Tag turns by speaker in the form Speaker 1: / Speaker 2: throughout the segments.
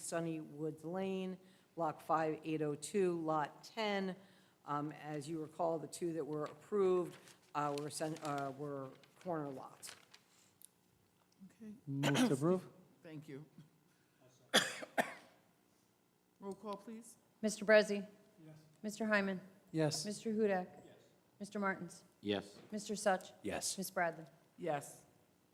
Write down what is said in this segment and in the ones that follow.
Speaker 1: Sunny Woods Lane, Block 5802, Lot 10. Um, As you recall, the two that were approved uh, were sen- uh, were corner lots.
Speaker 2: Okay,
Speaker 3: Move to approve?
Speaker 2: thank you. Roll call, please.
Speaker 4: Mr. Brezzi. Mr. Hyman.
Speaker 3: Yes.
Speaker 4: Mr. Hudak. Mr. Martins.
Speaker 5: Yes.
Speaker 4: Mr. Such.
Speaker 5: Yes.
Speaker 4: Ms. Bradley.
Speaker 2: Yes,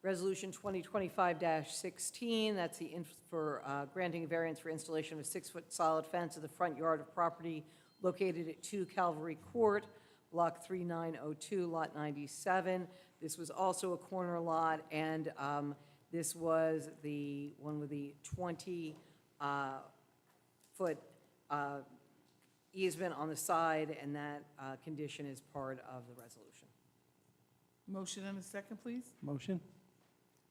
Speaker 1: Resolution 2025-16, that's the, inf- for uh, granting variance for installation of a six-foot solid fence in the front yard of property located at 2 Calvary Court, Block 3902, Lot 97. This was also a corner lot, and um, this was the one with the uh, 20-foot uh, easement on the side, and that uh, condition is part of the resolution.
Speaker 2: motion and a second, please.
Speaker 3: Motion?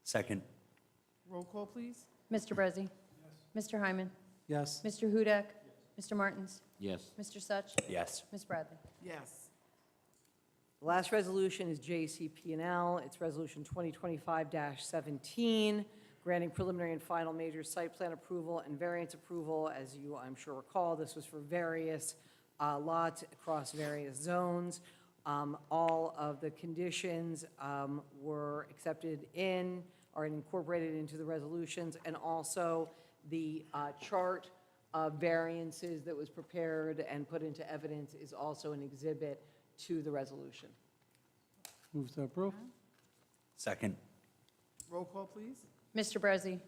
Speaker 5: Second.
Speaker 2: Roll call, please.
Speaker 4: Mr. Brezzi. Mr. Hyman.
Speaker 3: Yes.
Speaker 4: Mr. Hudak. Mr. Martins.
Speaker 5: Yes.
Speaker 4: Mr. Such.
Speaker 5: Yes.
Speaker 4: Ms. Bradley.
Speaker 2: Yes,
Speaker 1: The last resolution is JCP&L. It's Resolution 2025-17, granting preliminary and final major site plan approval and variance approval. As you, I'm sure, recall, this was for various uh, lots across various zones. Um, All of the conditions um, were accepted in, are incorporated into the resolutions, and also the uh, chart of variances that was prepared and put into evidence is also an exhibit to the resolution.
Speaker 3: Move to approve?
Speaker 5: Second.
Speaker 2: roll call, please.
Speaker 4: Mr. Brezzi.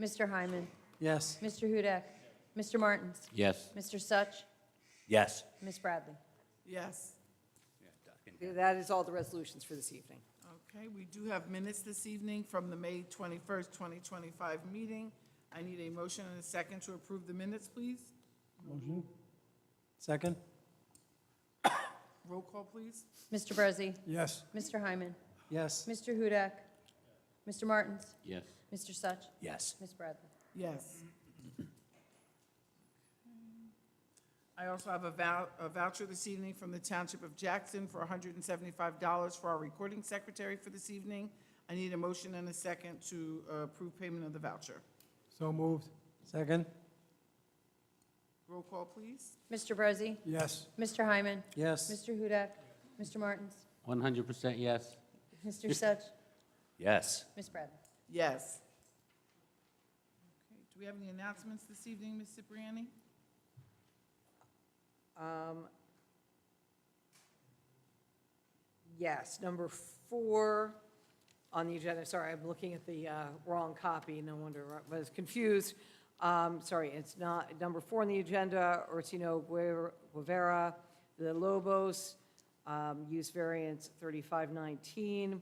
Speaker 4: Mr. Hyman.
Speaker 3: Yes.
Speaker 4: Mr. Hudak. Mr. Martins.
Speaker 5: Yes.
Speaker 4: Mr. Such.
Speaker 5: Yes.
Speaker 4: Ms. Bradley.
Speaker 2: Yes,
Speaker 1: That is all the resolutions for this evening.
Speaker 2: okay, we do have minutes this evening from the May 21st, 2025 meeting. I need a motion and a second to approve the minutes, please.
Speaker 3: Motion? Second?
Speaker 2: Roll call, please.
Speaker 4: Mr. Brezzi.
Speaker 3: Yes.
Speaker 4: Mr. Hyman.
Speaker 3: Yes.
Speaker 4: Mr. Hudak. Mr. Martins.
Speaker 5: Yes.
Speaker 4: Mr. Such.
Speaker 5: Yes.
Speaker 4: Ms. Bradley.
Speaker 2: Yes. I also have a vou- a voucher this evening from the Township of Jackson for $175 for our recording secretary for this evening. I need a motion and a second to uh, approve payment of the voucher.
Speaker 3: So moved. Second?
Speaker 2: Roll call, please.
Speaker 4: Mr. Brezzi.
Speaker 3: Yes.
Speaker 4: Mr. Hyman.
Speaker 3: Yes.
Speaker 4: Mr. Hudak. Mr. Martins.
Speaker 5: One hundred percent yes.
Speaker 4: Mr. Such.
Speaker 5: Yes.
Speaker 4: Ms. Bradley.
Speaker 2: Yes. Okay. Do we have any announcements this evening, Ms. Cipriani?
Speaker 1: Um, Yes, number four on the agenda, sorry, I'm looking at the uh, wrong copy, no wonder I was confused. Um, Sorry, it's not, number four on the agenda, Ursino Guer- Guevara, the Lobos, um, use variance 3519,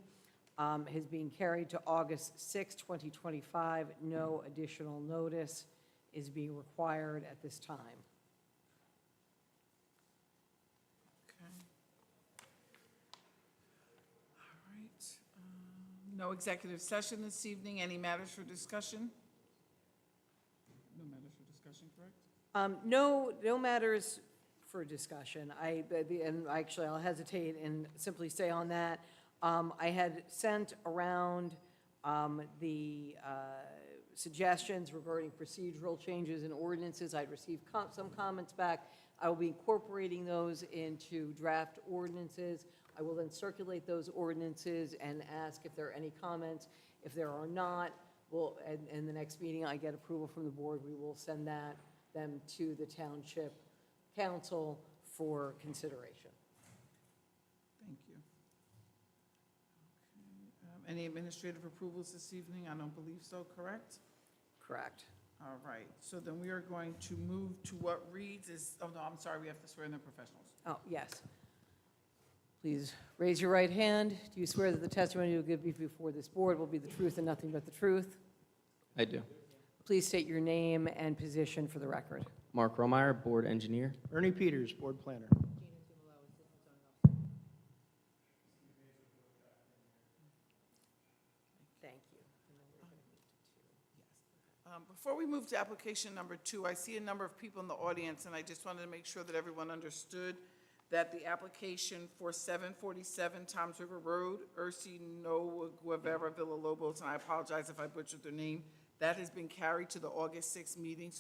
Speaker 1: um, has been carried to August 6, 2025. No additional notice is being required at this time.
Speaker 2: Okay. All right. um, No executive session this evening. Any matters for discussion? No matters for discussion, correct?
Speaker 1: Um, No, no matters for discussion. I, the- and actually, I'll hesitate and simply say on that, um, I had sent around um, the uh, suggestions regarding procedural changes and ordinances. I'd received com- some comments back. I will be incorporating those into draft ordinances. I will then circulate those ordinances and ask if there are any comments. If there are not, well, and, and the next meeting, I get approval from the board, we will send that, them to the township council for consideration.
Speaker 2: Thank you. Okay, um, Any administrative approvals this evening? I don't believe so, correct?
Speaker 1: Correct.
Speaker 2: All right, so then we are going to move to what reads is, oh no, I'm sorry, we have to swear in the professionals.
Speaker 1: Oh, yes. Please raise your right hand. Do you swear that the testimony you'll give before this board will be the truth and nothing but the truth?
Speaker 6: I do.
Speaker 1: Please state your name and position for the record.
Speaker 6: Mark Romeyer, Board Engineer.
Speaker 7: Ernie Peters, Board Planner.
Speaker 1: Thank you.
Speaker 2: Um, Before we move to application number two, I see a number of people in the audience, and I just wanted to make sure that everyone understood that the application for 747 Toms River Road, Ursi Noa Guevara Villa Lobos, and I apologize if I butchered their name, That has been carried to the August 6th meeting, so